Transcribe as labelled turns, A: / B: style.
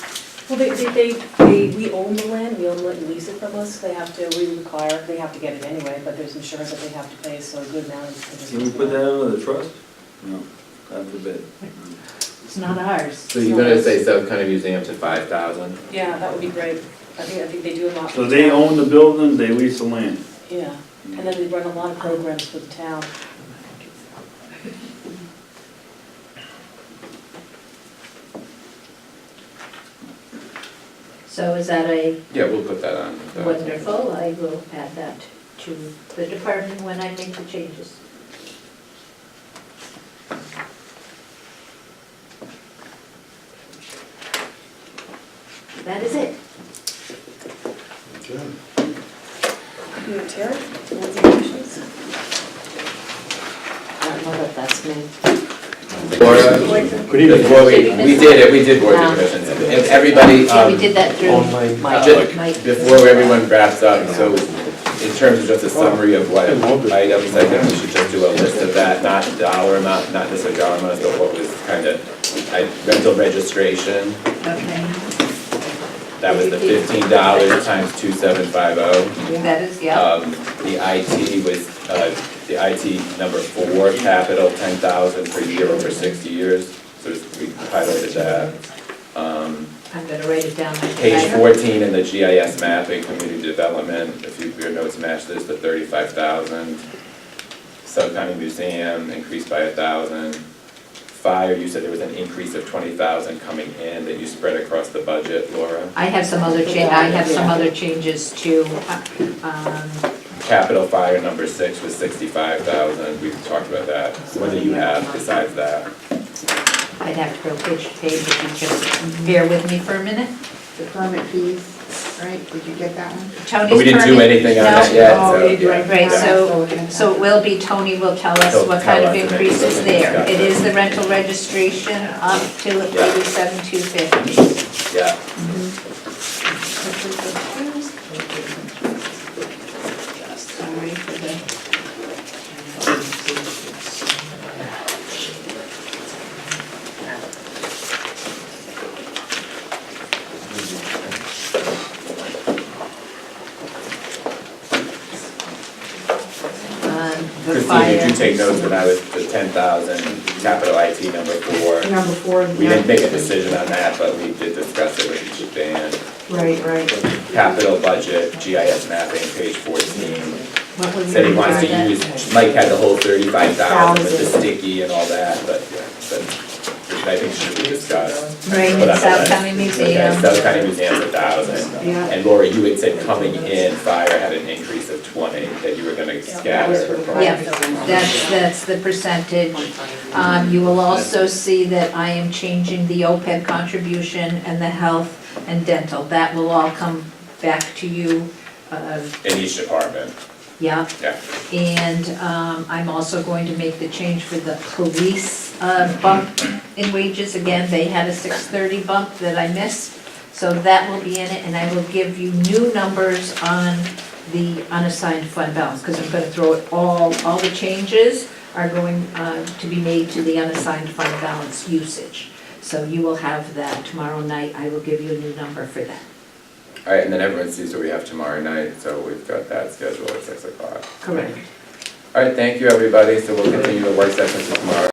A: Well, they, they, they- they, we own the land, we own it and lease it from us, they have to, we require, they have to get it anyway, but there's insurance that they have to pay, so a good amount is.
B: Can we put that under the trust? No, God forbid.
A: It's not ours.
C: So you're gonna say South County Museum's at five thousand?
A: Yeah, that would be great, I think, I think they do a lot.
B: So they own the building, they lease the land.
A: Yeah, and then they run a lot of programs for the town.
D: So is that a
C: Yeah, we'll put that on. the-
D: wonderful, I will add that to the department when I make the changes. That is it.
E: Okay.
A: Terry, any questions?
F: I don't know that that's me.
C: Laura,
E: Good
C: before we,
D: Commission.
C: we did it, we did board
F: Um,
C: of commissions. If everybody,
D: Yeah, we
C: um,
D: did that through
E: Online.
F: Mike.
C: Just
D: Mike.
C: Before everyone wraps up, so in terms of just a summary of what items, I think we should just do a list of that, not dollar amount, not necessarily dollar amount, but what was kind of, I, rental registration,
D: Okay,
C: that was the fifteen dollars times two seven five oh.
D: that is, yeah.
C: Um, the IT was, uh, the IT number four, capital, ten thousand per year over sixty years, so we highlighted that. Um,
D: I'm gonna write it down. like
C: Page
D: that.
C: 14 in the GIS mapping, community development, if you- your notes match this, the 35,000. Sub County Museum increased by 1,000. Fire, you said there was an increase of 20,000 coming in that you spread across the budget, Laura.
D: I have some other cha, I have some other changes to, um,
C: Capital Fire number six was 65,000, we've talked about that. What do you have besides that?
D: I'd have to go page to page if you just bear with me for a minute.
G: The permit fees, right, did you get that one?
D: Tony's
C: But we didn't do
D: permit-
C: anything on
D: No.
C: that yet,
G: No.
C: so.
G: Oh,
C: yeah.
G: right,
D: Right,
C: Yeah.
D: so, so it will be, Tony will tell us
C: He'll
D: what
C: tell
D: kind of
C: us and
D: increase is
C: everything.
D: there. It
C: Yeah.
D: is the rental registration up to
C: Yeah.
D: eighty-seven, two fifty.
C: Yeah.
D: Sorry for the. Um, the
C: Christine, did you
D: fire.
C: take notes when I was, the ten thousand, capital IT number four?
G: Number four.
C: We didn't make a decision on that, but we did discuss it with Dan.
G: Right, right.
C: Capital budget, GIS mapping, page fourteen,
D: What was
C: said he
D: the
C: wants to
D: fire?
C: use, Mike had the whole thirty-five thousand with the sticky and all that, but, yeah, but I think should be discussed.
D: Right,
C: Put on the
D: South
C: list.
D: County
C: Okay,
D: Museum.
C: South County Museum's a thousand.
G: Yeah.
C: And Laura, you had said coming in, fire had an increase of twenty, that you were gonna scatter. across.
D: Yeah, that's, that's the percentage. Um, you will also see that I am changing the OPEB contribution and the health and dental. That will all come back to you, uh,
C: In each department,
D: yeah.
C: yeah.
D: And, um, I'm also going to make the change for the police, uh, bump in wages. Again, they had a six thirty bump that I missed, so that will be in it, and I will give you new numbers on the unassigned fund balance, because I'm gonna throw it all, all the changes are going, uh, to be made to the unassigned fund balance usage. So you will have that tomorrow night. I will give you a new number for that,
C: All right, and then everyone sees what we have tomorrow night, so we've got that scheduled at six o'clock.
D: correct?
C: All right, thank you, everybody, so we'll continue the work sessions tomorrow.